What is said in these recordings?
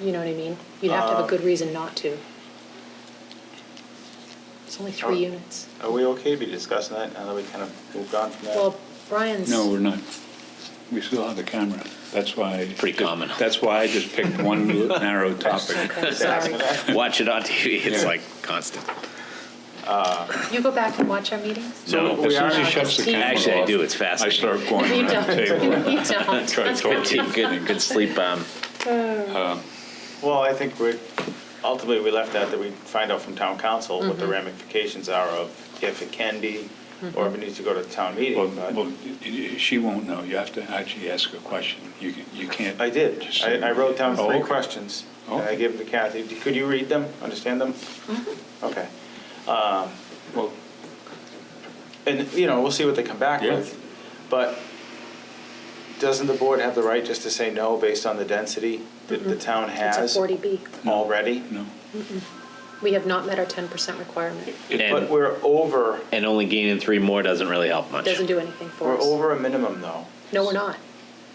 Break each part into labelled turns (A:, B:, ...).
A: You know what I mean? You'd have to
B: Uh,
A: have a good reason not to. It's only three
B: Uh,
A: units.
B: Are we okay to be discussing that now that we kind of moved on from that?
A: Well, Brian's.
C: No, we're not. We still have the camera. That's why.
D: Pretty common.
C: That's why I just picked one narrow topic.
A: Okay, sorry.
D: Watch it on TV, it's
C: Yeah.
D: like constant.
A: You go back and watch our meetings?
D: No,
C: As soon as
A: are-
C: she shuts the camera off.
D: Actually, I do, it's
C: I
D: fascinating.
C: start going
A: You
C: around the
A: don't,
C: table.
A: you don't.
C: Try to talk to
D: Good, good- good sleep um, bomb.
B: Well, I think we're, ultimately, we left out that we find out from town council what the
A: Mm-hmm.
B: ramifications are of if it can be, or
A: Mm-hmm.
B: if it needs to go to town meeting,
C: Well, well,
B: but
C: y- y- she won't know. You have to actually ask a question. You can, you can't.
B: I did.
C: just say-
B: I, I wrote down
C: Oh,
B: three
C: okay.
B: questions, and I
C: Okay.
B: gave them to Kathy. Could you read them, understand them?
A: Mm-hmm.
B: Okay. Um,
C: Well,
B: And, you know, we'll see what they come back
C: Yeah.
B: with. But doesn't the board have the right just to say no based on the density that the town
A: Mm-hmm. It's a
B: has
A: 40B.
B: already?
C: no.
A: We have not met our 10% requirement.
B: But
D: And,
B: we're over,
D: and only gaining three more doesn't really help much.
A: Doesn't do anything for
B: we're
A: us.
B: over a minimum, though.
A: No, we're not.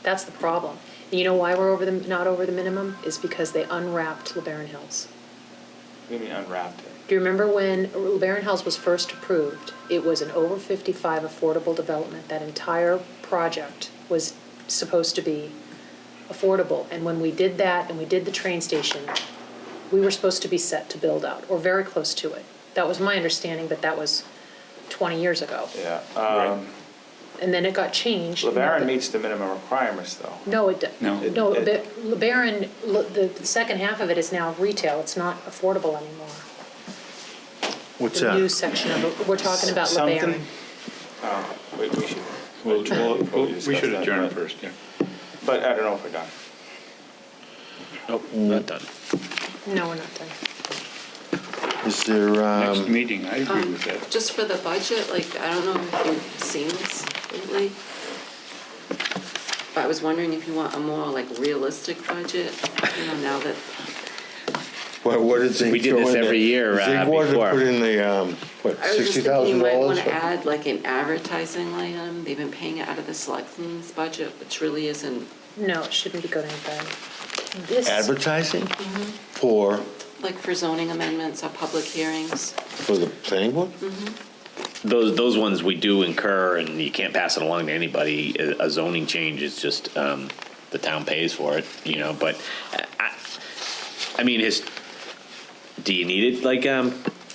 A: That's the problem. And you know why we're over the, not over the minimum? Is because they unwrapped LeBaron Hills.
B: What do you mean unwrapped it?
A: Do you remember when LeBaron Hills was first approved? It was an over 55 affordable development. That entire project was supposed to be affordable. And when we did that and we did the train station, we were supposed to be set to build out or very close to it. That was my understanding, but that was 20 years ago.
B: Yeah. um,
A: And then it got changed.
B: LeBaron meets the minimum requirements, though.
A: No, it, do-
C: No.
A: no,
B: It-
A: but LeBaron, le- the the second half of it is now retail, it's not affordable anymore.
E: What's
A: The new
E: that?
A: section of, it- we're talking about LeBaron.
B: Something. Oh, we we should,
C: Well, well,
B: Before we
C: we
B: discuss
C: should
B: that,
C: adjourn
B: but-
C: first, yeah.
B: but I don't know if we're done.
D: Nope, not done.
A: No, we're not done.
E: Is there,
C: Next
E: um,
C: meeting, I agree with that.
F: Just for the budget, like, I don't know if you've seen this lately. But I was wondering if you want a more like realistic budget, you know, now that,
E: what, what did they
D: We did
E: throw
D: this
E: in
D: every year,
E: there? They
D: uh,
E: wanted to
D: before.
E: Put in the, um, what,
F: I was just
E: sixty
F: thinking
E: thousand
F: you might
E: dollars?
F: wanna add like an advertising line item. They've been paying it out of the selectmen's budget, which really isn't,
A: No, it shouldn't be going anywhere. This,
E: Advertising?
F: Mm-hmm.
E: For,
F: like for zoning amendments or public hearings.
E: for the planning board?
F: Mm-hmm.
D: Those, those ones we do incur, and you can't pass it along to anybody. A- A zoning change is just, um, the town pays for it, you know, but I- I, I mean, his, do you need it, like, um,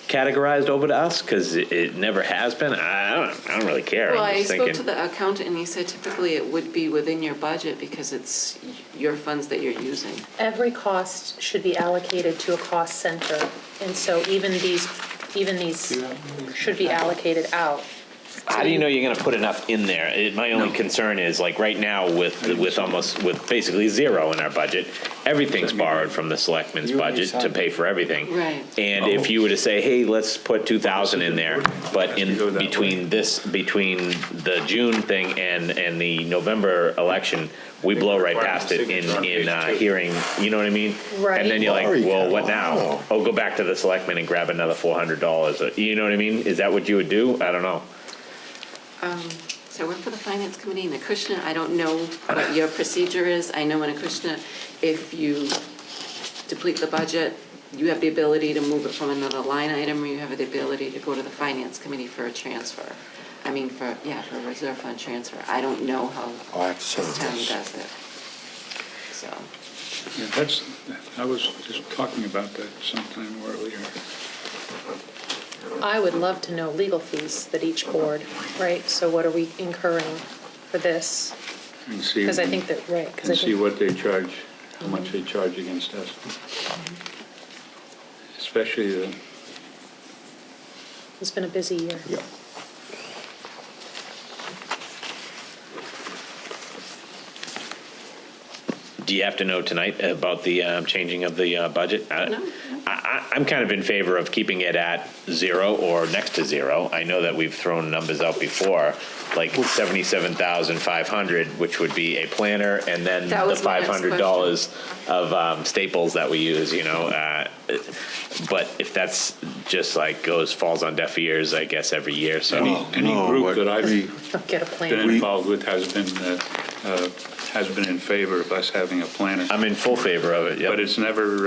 D: categorized over to us? Because it, it never has been. I I don't, I don't really care.
F: Well,
D: I'm
F: I
D: just
F: spoke to
D: thinking-
F: the accountant and he said typically it would be within your budget because it's your funds that you're using.
A: every cost should be allocated to a cost center, and so even these, even these should be allocated out.
D: How do you know you're going to put enough in there? It, my only concern is like right now with with almost with basically zero in our budget, everything's borrowed from the selectmen's
B: You and
D: budget
B: your
D: to
B: son.
D: pay for everything.
F: Right.
D: And if you were to say, hey, let's put two thousand in there, but
C: Has to go
D: in
C: that way.
D: between this between the June thing and and the November election, we blow right past it in in uh, hearing. You know what I mean?
A: Right.
D: And then you're
E: Glory
D: like, well, what now?
E: Colorado.
D: Oh, go back to the selectmen and grab another four hundred dollars. You know what I mean? Is that what you would do? I don't know.
F: So I work for the finance committee in Acushnet. I don't know what your procedure is. I know in Acushnet, if you deplete the budget, you have the ability to move it from another line item, or you have the ability to go to the finance committee for a transfer. I mean, for, yeah, for a reserve fund transfer. I don't know how
E: Oh, I have to send
F: this town
E: this.
F: does it. So,
C: Yeah, That's, I was just talking about that sometime earlier.
A: I would love to know legal fees that each board, right, so what are we incurring for this?
C: and see-
A: Because I think that, right, because I
C: And see
A: think,
C: what they charge, how much they charge against us. Especially the,
A: it's been a busy year.
E: Yeah.
D: Do you have to know tonight about the um, changing of the uh, budget? I-
F: No.
D: I, I, I'm kind of in favor of keeping it at zero or next to zero. I know that we've thrown numbers out before, like seventy-seven thousand five hundred, which would be a planner, and then
F: That
D: the
F: was my
D: five
F: next
D: hundred dollars of um, staples that we use. You know, uh, but if that's just like goes falls on deaf ears, I guess every year. So
C: any, any
E: no,
C: group
E: what
C: that I've
A: Don't get a
C: been
A: plan.
C: involved with has been uh,
D: uh, has been in favor of us having a planner,
C: I'm in full favor of it, yep.
D: but it's never